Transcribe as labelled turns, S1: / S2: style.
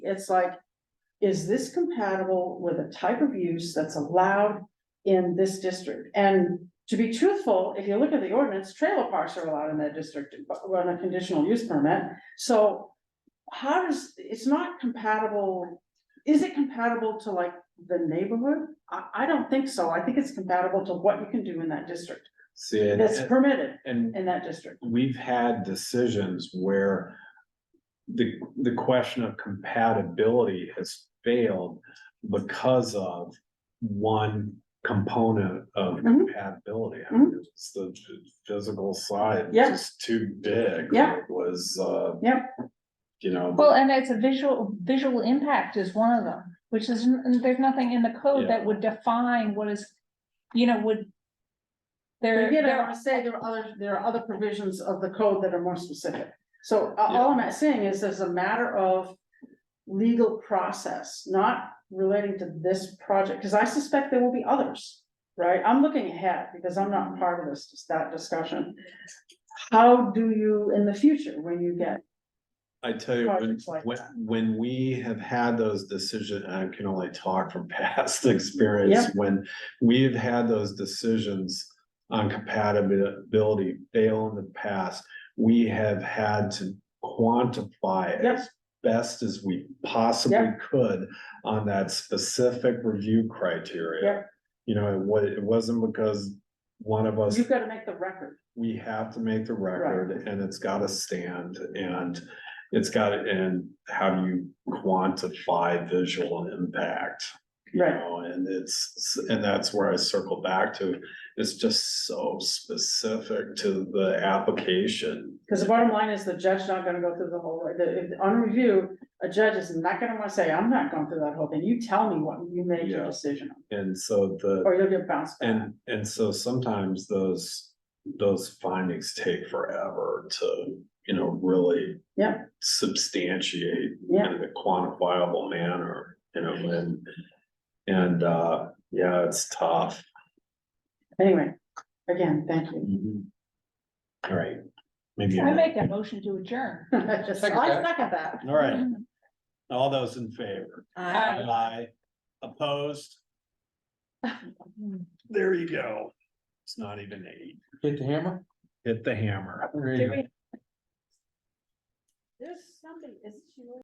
S1: it's like, is this compatible with a type of use that's allowed in this district? And to be truthful, if you look at the ordinance, trailer parks are allowed in that district but on a conditional use permit. So how does, it's not compatible, is it compatible to like the neighborhood? I, I don't think so. I think it's compatible to what you can do in that district,
S2: See, and-
S1: that's permitted
S2: and
S1: in that district.
S2: we've had decisions where the, the question of compatibility has failed because of one component of
S1: Mhm.
S2: compatibility. I mean, It's the physical side,
S1: Mm-hmm. Yeah.
S2: just too big.
S1: Yeah.
S2: It Was, uh.
S1: Yeah.
S2: You know.
S3: Well, and it's a visual, visual impact is one of them, which is, n- there's nothing in the code that would define what is, you know, would. There,
S1: Again, I
S3: there,
S1: want to say there are other, there are other provisions of the code that are more specific. So uh, all I'm saying is there's a matter of legal process, not relating to this project, because I suspect there will be others, right? I'm looking ahead because I'm not part of this, that discussion. How do you, in the future, when you get,
S2: I tell you, when,
S1: projects like
S2: when,
S1: that.
S2: when we have had those decisions, I can only talk from past experience.
S1: Yeah.
S2: When we've had those decisions on compatibility fail in the past, we have had to quantify
S1: Yep.
S2: as best as we possibly could on that specific review criteria.
S1: Yep.
S2: You know, it wa- it wasn't because one of us
S1: you've got to make the record.
S2: we have to make the record and it's gotta stand and it's got, and how do you quantify visual impact? You
S1: Right.
S2: know, and it's, and that's where I circle back to, it's just so specific to the application.
S1: Because the bottom line is the judge's not gonna go through the whole, the, if- on review, a judge is not gonna wanna say, I'm not going through that whole thing, you tell me what you made your
S2: Yeah.
S1: decision on,
S2: And so the,
S1: or you'll get bounced back.
S2: and, and so sometimes those, those findings take forever to, you know, really
S1: Yeah.
S2: substantiate
S1: Yeah,
S2: in a quantifiable manner, you know, and. And, uh, yeah, it's tough.
S1: anyway, again, thank you.
S2: Mm-hmm. All right, maybe.
S3: I make a motion to adjourn.
S1: Oh,
S3: Mm-hmm.
S1: I second that.
S2: All right, all those in favor?
S3: Uh,
S2: Aye. Opposed? There you go. It's not even eight.
S4: Hit the hammer?
S2: Hit the hammer.
S4: There you
S3: Did
S4: go.
S3: we-
S1: There's somebody, is she?